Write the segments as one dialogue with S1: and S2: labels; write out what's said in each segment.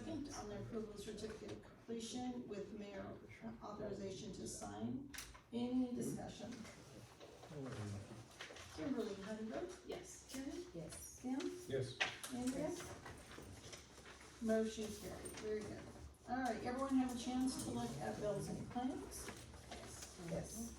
S1: approval of certificate of completion with mayor authorization to sign. Any discussion? Kimberly, how do you vote?
S2: Yes.
S1: Karen?
S2: Yes.
S1: Sam?
S3: Yes.
S1: Andrea? Motion carried, very good. All right, everyone have a chance to look at bills and claims?
S2: Yes.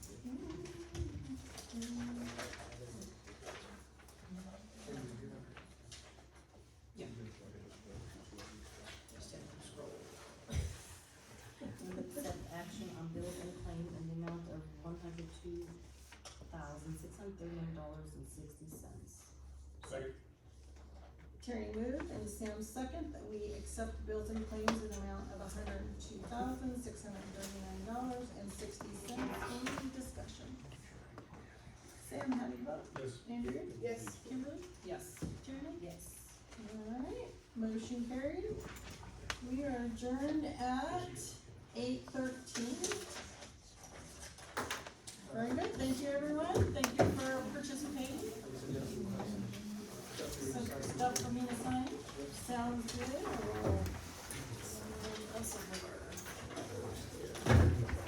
S2: Move accept action on bill and claim in the amount of one hundred two thousand, six hundred thirty-nine dollars and sixty cents.
S3: Second.
S1: Terry moved and Sam second that we accept bills and claims in the amount of hundred and two thousand, six hundred and thirty-nine dollars and sixty cents. Any discussion? Sam, how do you vote?
S3: Yes.
S1: Andrea?
S2: Yes.
S1: Kimberly?
S2: Yes.
S1: Jeremy?
S2: Yes.
S1: Alright, motion carried. We are adjourned at eight thirteen. Very good, thank you everyone, thank you for participating. Some stuff for me to sign, sounds good, or? That's a